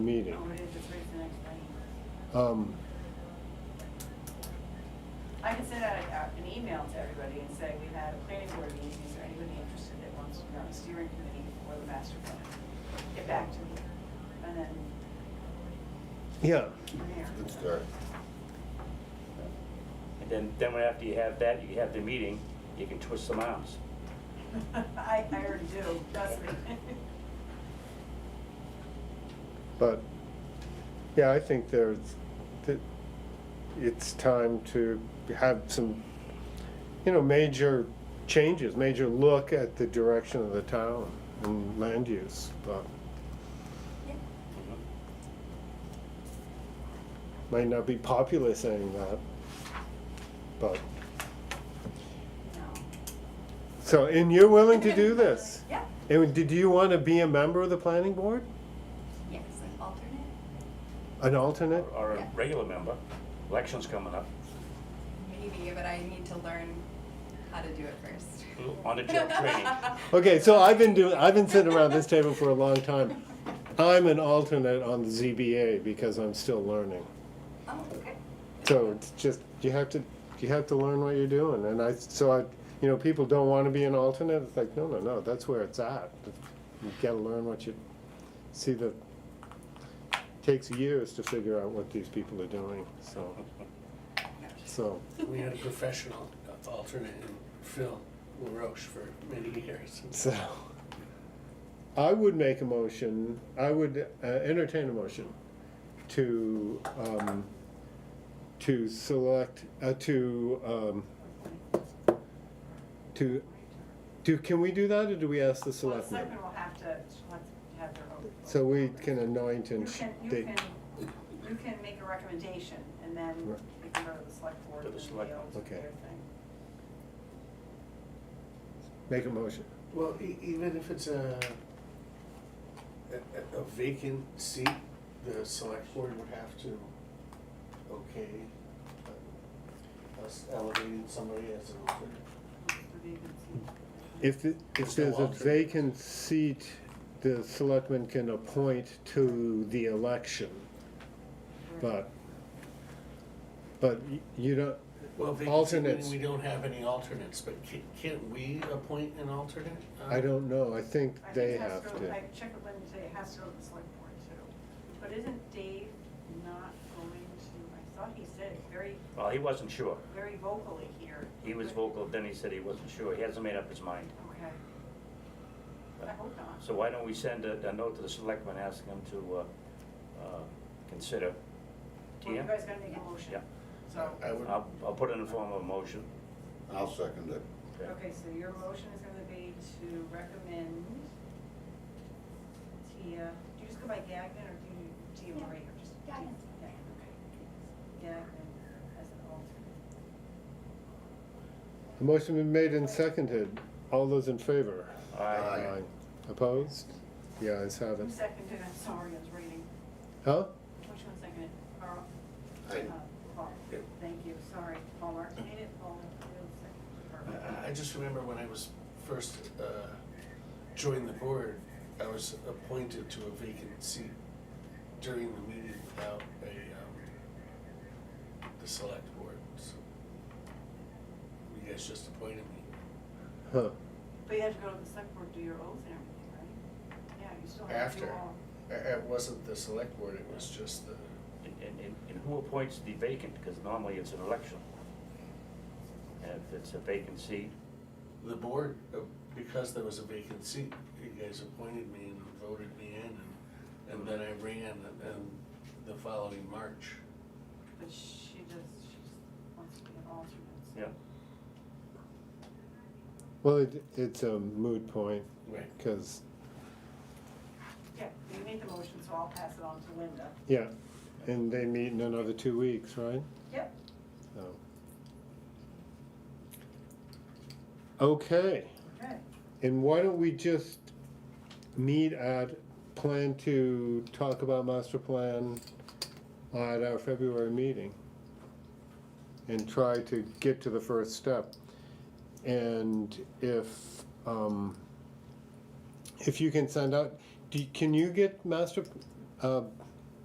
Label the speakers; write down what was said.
Speaker 1: meeting.
Speaker 2: Or if it's raised the next day.
Speaker 1: Um,
Speaker 2: I can send out a- out an email to everybody and say, we've had a planning board meeting, is there anybody interested that wants to be on the steering committee or the master plan? Get back to me, and then
Speaker 1: Yeah,
Speaker 2: from there.
Speaker 3: Good start.
Speaker 4: And then, then when after you have that, you have the meeting, you can twist some arms.
Speaker 2: I, I already do, trust me.
Speaker 1: but, yeah, I think there's, that it's time to have some, you know, major changes, major look at the direction of the town and land use. But Might not be popular saying that, but,
Speaker 2: No.
Speaker 1: so, and you're willing to do this?
Speaker 5: Yeah,
Speaker 1: And did you want to be a member of the planning board?
Speaker 5: yes, an alternate,
Speaker 1: An alternate?
Speaker 4: Or a
Speaker 5: Yeah.
Speaker 4: regular member, election's coming up,
Speaker 5: maybe, but I need to learn how to do it first. Oh,
Speaker 4: on the job training.
Speaker 1: Okay, so I've been doing, I've been sitting around this table for a long time. I'm an alternate on the ZBA because I'm still learning.
Speaker 5: Oh, okay.
Speaker 1: So it's just, you have to, you have to learn what you're doing. And I, so I, you know, people don't want to be an alternate. It's like, no, no, no, that's where it's at. You gotta learn what you, see the, takes years to figure out what these people are doing, so, so.
Speaker 6: We had a professional uh, alternate in Phil LaRoche for many years.
Speaker 1: So, I would make a motion, I would uh, entertain a motion to, um, to select, uh, to, um, to, do, can we do that, or do we ask the
Speaker 2: Well, the
Speaker 1: selectmen?
Speaker 2: selectmen will have to, select- have their own.
Speaker 1: So we can anoint
Speaker 2: You
Speaker 1: and sh-
Speaker 2: can, you
Speaker 1: they-
Speaker 2: can, you can make a recommendation, and then
Speaker 1: Right.
Speaker 2: it can go to the select board
Speaker 4: To
Speaker 2: and
Speaker 4: the
Speaker 2: then they
Speaker 4: select-
Speaker 2: all do
Speaker 1: okay.
Speaker 2: their thing.
Speaker 1: make a motion.
Speaker 6: Well, e- even if it's a, a, a vacant seat, the select board would have to, okay, uh, us elevating somebody as an alternate.
Speaker 2: The vacancy.
Speaker 1: If, it- if
Speaker 6: There's no
Speaker 1: there's a
Speaker 6: alternate.
Speaker 1: vacant seat, the selectmen can appoint to the election, but, but y- you don't,
Speaker 6: Well, vacant seat, meaning
Speaker 1: Alternates.
Speaker 6: we don't have any alternates, but can, can't we appoint an alternate?
Speaker 1: I don't know, I think
Speaker 2: Uh, I think
Speaker 1: they
Speaker 2: it has
Speaker 1: have
Speaker 2: go-
Speaker 1: to.
Speaker 2: I checked with Linda today, it has to go to the select board too. But isn't Dave not going to, I thought he said it very,
Speaker 4: Well, he wasn't sure.
Speaker 2: very vocally here.
Speaker 4: He was vocal, then he said he wasn't sure. He hasn't made up his mind.
Speaker 2: Okay. I hope not.
Speaker 4: So why don't we send a, a note to the selectmen asking them to, uh, uh, consider.
Speaker 2: Well, you
Speaker 4: TM?
Speaker 2: guys gotta make a motion.
Speaker 4: Yeah.
Speaker 2: So,
Speaker 6: I would,
Speaker 4: I'll, I'll put it in the form of a motion.
Speaker 3: I'll second it.
Speaker 2: okay, so your motion is gonna be to recommend Tia, do you just go by Gagnon or do you, Tia
Speaker 5: Yeah.
Speaker 2: Marie or just?
Speaker 5: Gagnon.
Speaker 2: Gagnon, okay. Gagnon as an alternate.
Speaker 1: The motion been made and seconded, all those in favor?
Speaker 4: Aye.
Speaker 3: Aye.
Speaker 1: Opposed? The ayes have it.
Speaker 2: Who seconded it? I'm sorry, I was reading.
Speaker 1: Huh?
Speaker 2: Which one seconded? Carl?
Speaker 3: I-
Speaker 2: Uh, Paul. Thank you, sorry. Paul Marks made it, Paul Fields seconded.
Speaker 6: I, I just remember when I was first, uh, joined the board, I was appointed to a vacant seat during the meeting without a, um, the select board, so. You guys just appointed me
Speaker 1: Huh.
Speaker 2: But you had to go to the select board, do your oath and everything, right? Yeah, you still have to do
Speaker 6: after.
Speaker 2: all.
Speaker 6: It, it wasn't the select board, it was just the,
Speaker 4: And, and, and who appoints the vacant? Because normally it's an election. And if it's a vacant seat,
Speaker 6: the board, uh, because there was a vacant seat, you guys appointed me and voted me in, and, and then I ran, and the following March.
Speaker 2: But she does, she just wants to be an alternate. so-
Speaker 4: yeah.
Speaker 1: Well, it, it's a moot point,
Speaker 6: Right.
Speaker 1: because,
Speaker 2: Yeah, you made the motion, so I'll pass it on to Linda.
Speaker 1: yeah, and they meet in another two weeks, right?
Speaker 2: Yep.
Speaker 1: So. Okay.
Speaker 2: Okay.
Speaker 1: And why don't we just meet at, plan to talk about master plan at our February meeting? And try to get to the first step. And if, um, if you can send out, do, can you get master, uh,